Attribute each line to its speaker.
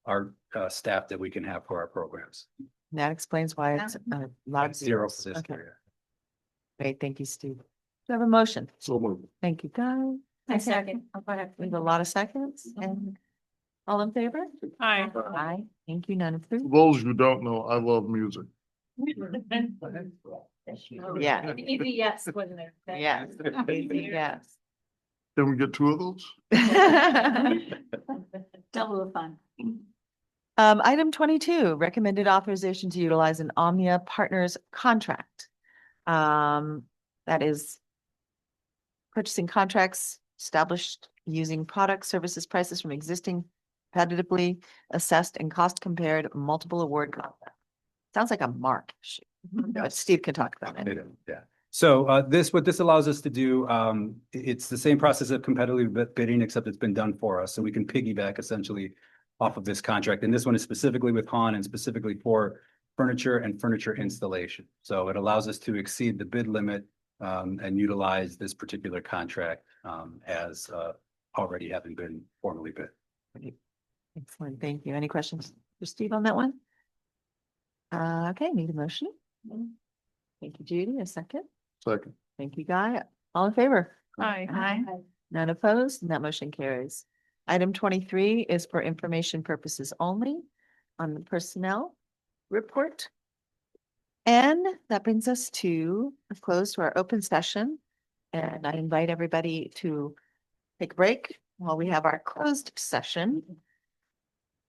Speaker 1: our uh staff that we can have for our programs.
Speaker 2: That explains why it's uh, a lot of
Speaker 1: Zero
Speaker 2: zeros.
Speaker 1: for this
Speaker 2: Okay,
Speaker 1: area.
Speaker 2: great. Thank you, Steve. Do you have a motion?
Speaker 3: So moved.
Speaker 2: Thank you, Guy.
Speaker 4: I second. Oh, go ahead. Mm-hmm.
Speaker 2: We have a lot of seconds and all in favor?
Speaker 4: Hi.
Speaker 2: Aye. Thank you, none of three.
Speaker 3: Those who don't know, I love music.
Speaker 2: Yeah.
Speaker 4: Oh, Easy yes, wasn't it? That-
Speaker 2: Yes. Yes.
Speaker 3: Can we get two of those?
Speaker 4: Double the fun.
Speaker 2: Um, item twenty-two, recommended authorization to utilize an Omnia Partners contract. Um, that is purchasing contracts established using products, services, prices from existing competitively assessed and cost compared multiple award contract. Sounds like a mark issue, but Steve can talk about it.
Speaker 1: Yeah. So uh, this, what this allows us to do, um, i- it's the same process of competitive bid- bidding, except it's been done for us. So we can piggyback essentially off of this contract. And this one is specifically with Han and specifically for furniture and furniture installation. So it allows us to exceed the bid limit um, and utilize this particular contract um, as uh, already having been formally bid.
Speaker 2: Excellent, thank you. Any questions for Steve on that one? Uh, okay, need a motion? Thank you, Judy. A second?
Speaker 3: Second.
Speaker 2: Thank you, Guy. All in favor?
Speaker 4: Hi.
Speaker 2: None opposed, and that motion carries. Item twenty-three is for information purposes only on the personnel report. And that brings us to a close to our open session. And I invite everybody to take a break while we have our closed session.